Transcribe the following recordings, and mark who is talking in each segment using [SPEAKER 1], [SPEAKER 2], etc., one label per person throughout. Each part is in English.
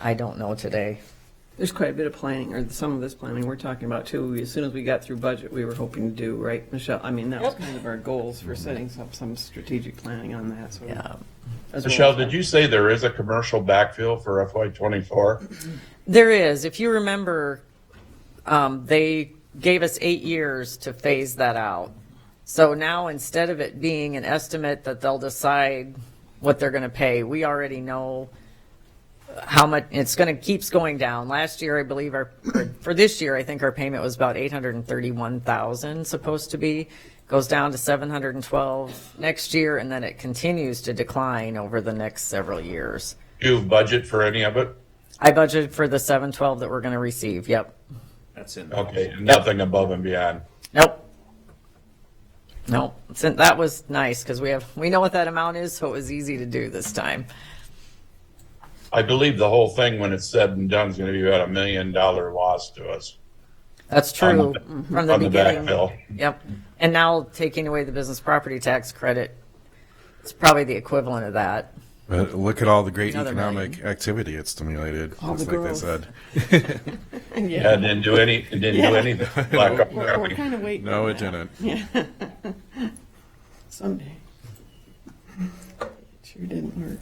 [SPEAKER 1] I don't know today.
[SPEAKER 2] There's quite a bit of planning, or some of this planning we're talking about too. As soon as we got through budget, we were hoping to do, right, Michelle? I mean, that was
[SPEAKER 1] Yep.
[SPEAKER 2] kind of our goals for setting up some strategic planning on that, so.
[SPEAKER 1] Yeah.
[SPEAKER 2] as well
[SPEAKER 3] Michelle,
[SPEAKER 2] as-
[SPEAKER 3] did you say there is a commercial backfill for FY twenty-four?
[SPEAKER 1] There is, if you remember, um, they gave us eight years to phase that out. So now, instead of it being an estimate that they'll decide what they're gonna pay, we already know how much, it's gonna, keeps going down. Last year, I believe our, for this year, I think our payment was about eight hundred and thirty-one thousand supposed to be, goes down to seven hundred and twelve next year, and then it continues to decline over the next several years.
[SPEAKER 3] Do you budget for any of it?
[SPEAKER 1] I budgeted for the seven twelve that we're gonna receive, yep.
[SPEAKER 4] That's in. the
[SPEAKER 3] Okay,
[SPEAKER 4] motion.
[SPEAKER 3] nothing above and beyond.
[SPEAKER 1] Nope. Nope. So that was nice because we have, we know what that amount is, so it was easy to do this time.
[SPEAKER 3] I believe the whole thing, when it's said and done, is gonna be about a million dollar loss to us
[SPEAKER 1] That's
[SPEAKER 3] On the-
[SPEAKER 1] true from the
[SPEAKER 3] on the
[SPEAKER 1] beginning.
[SPEAKER 3] backfill.
[SPEAKER 1] Yep. And now taking away the business property tax credit, it's probably the equivalent of that.
[SPEAKER 5] But look at all the great
[SPEAKER 1] Another
[SPEAKER 5] economic activity it stimulated.
[SPEAKER 2] All
[SPEAKER 5] just
[SPEAKER 2] the
[SPEAKER 5] like they
[SPEAKER 2] growth.
[SPEAKER 5] said.
[SPEAKER 3] Yeah, it didn't do any, it didn't do
[SPEAKER 2] Yeah.
[SPEAKER 3] anything. Black Hawk
[SPEAKER 2] We're we're
[SPEAKER 3] County.
[SPEAKER 2] kind of waiting.
[SPEAKER 5] No,
[SPEAKER 2] on
[SPEAKER 5] it
[SPEAKER 2] that.
[SPEAKER 5] didn't.
[SPEAKER 2] Someday. It Sure didn't work.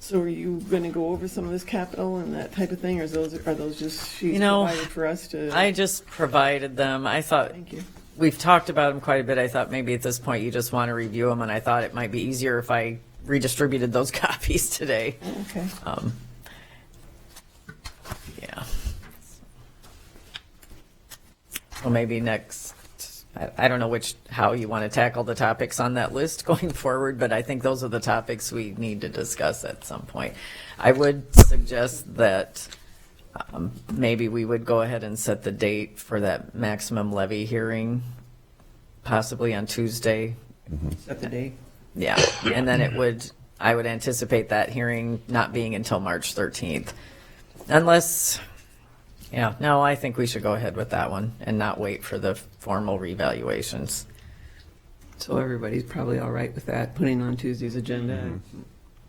[SPEAKER 2] So are you going to go over some of this capital and that type of thing, or is those, are those just sheets
[SPEAKER 1] You know,
[SPEAKER 2] provided for us to?
[SPEAKER 1] I just provided them. I thought,
[SPEAKER 2] Thank you.
[SPEAKER 1] we've talked about them quite a bit. I thought maybe at this point you just want to review them and I thought it might be easier if I redistributed those copies today.
[SPEAKER 2] Okay.
[SPEAKER 1] Um, yeah. Well, maybe next, I, I don't know which, how you want to tackle the topics on that list going forward, but I think those are the topics we need to discuss at some point. I would suggest that, um, maybe we would go ahead and set the date for that maximum levy hearing, possibly on Tuesday,
[SPEAKER 2] Set the date.
[SPEAKER 1] yeah, and then it would, I would anticipate that hearing not being until March 13th. Unless, yeah, no, I think we should go ahead with that one and not wait for the formal revaluations.
[SPEAKER 2] So everybody's probably all right with that, putting on Tuesday's agenda?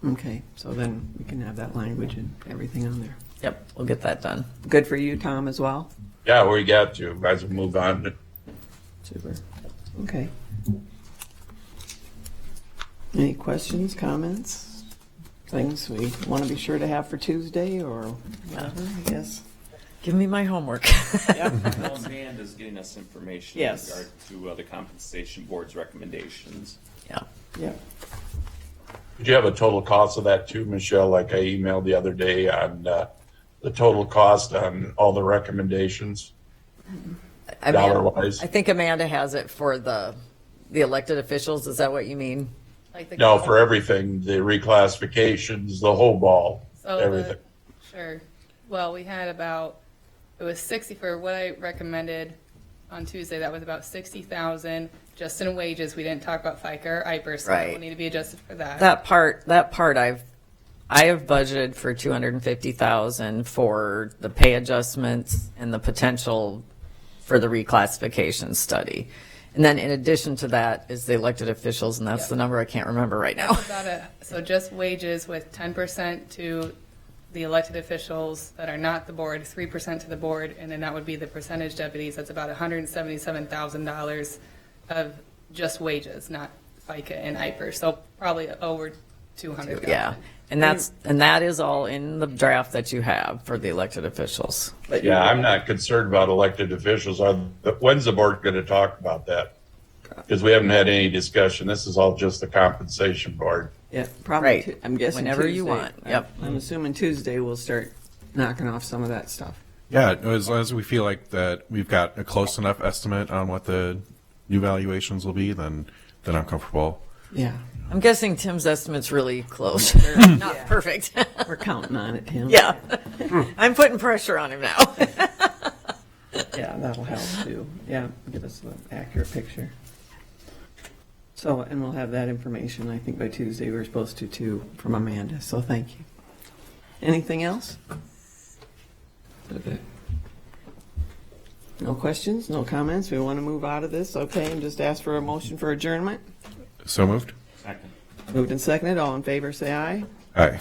[SPEAKER 2] Okay, so then we can have that language and everything on there.
[SPEAKER 1] Yep, we'll get that done.
[SPEAKER 2] Good for you, Tom, as well?
[SPEAKER 3] Yeah, we got to, might as well move on.
[SPEAKER 2] Super. Okay. Any questions, comments, things we want to be sure to have for Tuesday or whatever, I guess?
[SPEAKER 1] Give me my homework.
[SPEAKER 4] Well, Band is getting us information in
[SPEAKER 2] Yes.
[SPEAKER 4] regard to uh, the compensation board's recommendations.
[SPEAKER 1] Yeah,
[SPEAKER 2] Yeah.
[SPEAKER 3] Did you have a total cost of that too, Michelle? Like I emailed the other day on, uh, the total cost on all the recommendations?
[SPEAKER 1] I mean,
[SPEAKER 3] Dollar-wise.
[SPEAKER 1] I think Amanda has it for the, the elected officials, is that what you mean?
[SPEAKER 6] Like the
[SPEAKER 3] No, for everything, the reclassifications, the whole ball,
[SPEAKER 6] So the-
[SPEAKER 3] everything.
[SPEAKER 6] Oh, Sure. Well, we had about, it was 60 for what I recommended on Tuesday, that was about 60,000 just in wages. We didn't talk about FICA or IPER, so that
[SPEAKER 1] Right.
[SPEAKER 6] will need to be adjusted for that.
[SPEAKER 1] That part, that part I've, I have budgeted for two hundred and fifty thousand for the pay adjustments and the potential for the reclassification study. And then in addition to that is the elected officials, and that's the number I can't remember right now.
[SPEAKER 6] About a- So just wages with 10% to the elected officials that are not the board, 3% to the board, and then that would be the percentage deputies. That's about $177,000 of just wages, not FICA and IPER. So probably over 200,000.
[SPEAKER 1] Yeah, and that's, and that is all in the draft that you have for the elected officials.
[SPEAKER 3] Yeah, I'm not concerned about elected officials. I- When's the board going to talk about that? Because we haven't had any discussion. This is all just the compensation board.
[SPEAKER 2] Yeah, probably,
[SPEAKER 1] Right.
[SPEAKER 2] Tu- I'm guessing
[SPEAKER 1] Whenever you
[SPEAKER 2] Tuesday.
[SPEAKER 1] want. Yep.
[SPEAKER 2] I'm assuming Tuesday we'll start knocking off some of that stuff.
[SPEAKER 5] Yeah, as long as we feel like that we've got a close enough estimate on what the new valuations will be, then then I'm comfortable.
[SPEAKER 2] Yeah,
[SPEAKER 1] I'm guessing Tim's estimate's really close, They're not perfect.
[SPEAKER 2] we're counting on it, Tim.
[SPEAKER 1] Yeah, I'm putting pressure on him now.
[SPEAKER 2] Yeah, that'll help too. Yeah, give us an accurate picture. So, and we'll have that information, I think by Tuesday, we're supposed to too, from Amanda, so thank you. Anything else? No questions, no comments? We want to move out of this, okay, and just ask for a motion for adjournment?
[SPEAKER 5] So moved.
[SPEAKER 4] Second.
[SPEAKER 2] Moved and seconded, all in favor, say aye.
[SPEAKER 5] Aye.